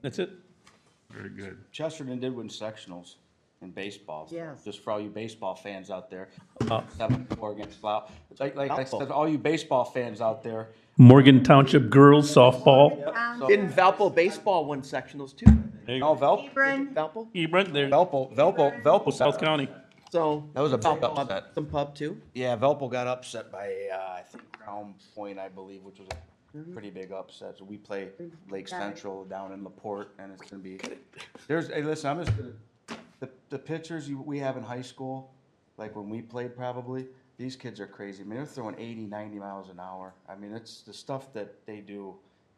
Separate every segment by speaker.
Speaker 1: That's it.
Speaker 2: Very good.
Speaker 3: Chesterton did win sectionals in baseball.
Speaker 4: Yes.
Speaker 3: Just for all you baseball fans out there. Seven, four against Blau. Like, like I said, all you baseball fans out there,
Speaker 1: Morgan Township girls softball.
Speaker 4: Um,
Speaker 5: Didn't Valpo baseball win sectionals too?
Speaker 3: no, Vel,
Speaker 4: Hebron,
Speaker 5: Valpo?
Speaker 1: Hebron, E. there,
Speaker 3: Velpo, Velpo, Velpo.
Speaker 1: South County.
Speaker 5: So.
Speaker 3: That was a big
Speaker 5: Valpo had
Speaker 3: upset.
Speaker 5: Some pub too.
Speaker 3: Yeah, Velpo got upset by, uh, I think Crown Point, I believe, which was a pretty big upset. So we play Lake
Speaker 4: Got it.
Speaker 3: Central down in LaPorte and it's gonna be, there's, hey, listen, I'm just gonna, the, the pitchers you, we have in high school, like when we played probably, these kids are crazy. I mean, they're throwing 80, 90 miles an hour. I mean, it's the stuff that they do,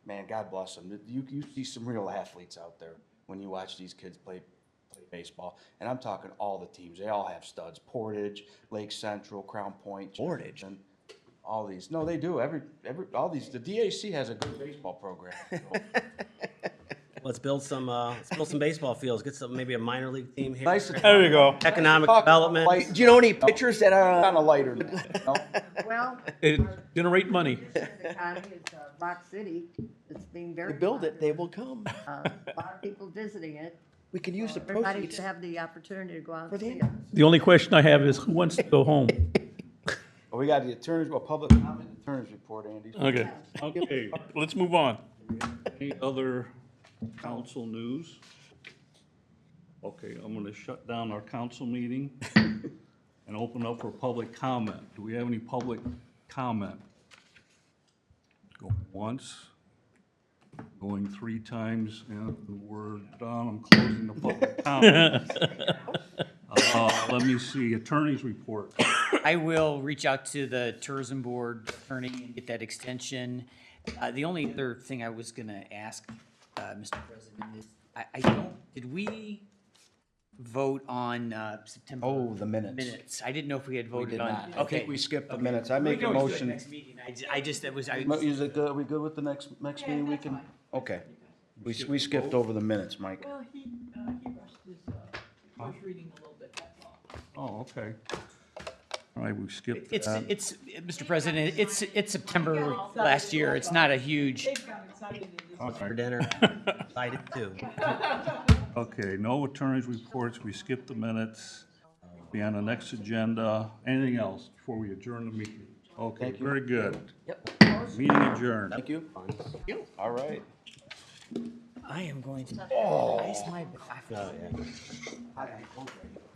Speaker 3: man, God bless them. You, you see some real athletes out there when you watch these kids play, play baseball. And I'm talking all the teams. They all have studs. Portage, Lake Central, Crown Point. Portage. And all these. No, they do. Every, every, all these. The DAC has a good baseball program. So,
Speaker 6: Let's build some, uh, let's build some baseball fields, get some, maybe a minor league team here.
Speaker 3: Nice.
Speaker 1: There you go.
Speaker 6: Economic
Speaker 3: Talk about
Speaker 6: development.
Speaker 3: light-
Speaker 5: Do you know any pitchers that uh,
Speaker 3: On a
Speaker 5: are,
Speaker 3: lighter note, you know?
Speaker 4: well,
Speaker 1: It generate money.
Speaker 4: the county is uh, Rock City. It's being very.
Speaker 5: they build it, they
Speaker 4: popular.
Speaker 5: will come.
Speaker 4: Uh, A lot of people visiting it.
Speaker 5: We can use the
Speaker 4: Everybody
Speaker 5: proceeds.
Speaker 4: should have the opportunity to go out
Speaker 5: For
Speaker 4: and
Speaker 5: the
Speaker 4: see it.
Speaker 5: animals.
Speaker 1: The only question I have is who wants to go home?
Speaker 3: Well, we got the attorneys, well, public comment, attorneys report, Andy.
Speaker 1: Okay.
Speaker 2: Okay,
Speaker 1: Let's move on.
Speaker 2: any other council news? Okay, I'm gonna shut down our council meeting and open up for public comment. Do we have any public comment? Going once, going three times, and we're done, I'm closing the public comment. Uh, let me see, attorney's report.
Speaker 7: I will reach out to the tourism board attorney and get that extension. Uh, the only other thing I was gonna ask, uh, Mr. President is, I, I don't, did we vote on, uh, September?
Speaker 3: Oh, the minutes.
Speaker 7: Minutes. I didn't know if we had
Speaker 3: We
Speaker 7: voted
Speaker 3: did
Speaker 7: on.
Speaker 3: not.
Speaker 7: Okay.
Speaker 3: I think we skipped the
Speaker 7: Okay.
Speaker 3: minutes. I
Speaker 7: We
Speaker 3: make a
Speaker 7: can always do it
Speaker 3: motion.
Speaker 7: Next meeting. I, ju- I just, that was, I.
Speaker 3: Mo- Is it good, are we good with the next, next meeting we can? Okay. We, s- we skipped over the minutes, Mike.
Speaker 8: Well, he, uh, he rushed his, uh, first reading a little bit, that's all.
Speaker 2: Oh, okay. All right, we skipped
Speaker 7: It's,
Speaker 2: that.
Speaker 7: it's, Mr. President, it's, it's September last year. It's not a huge.
Speaker 8: They've got excited in this.
Speaker 2: All right.
Speaker 6: For dinner, excited too.
Speaker 2: Okay, no attorney's reports, we skipped the minutes, be on the next agenda. Anything else before we adjourn the meeting? Okay, very good. Yep. Meeting adjourned.
Speaker 3: Thank you. All right.
Speaker 6: Oh,
Speaker 7: I am going to. Oh. my. I-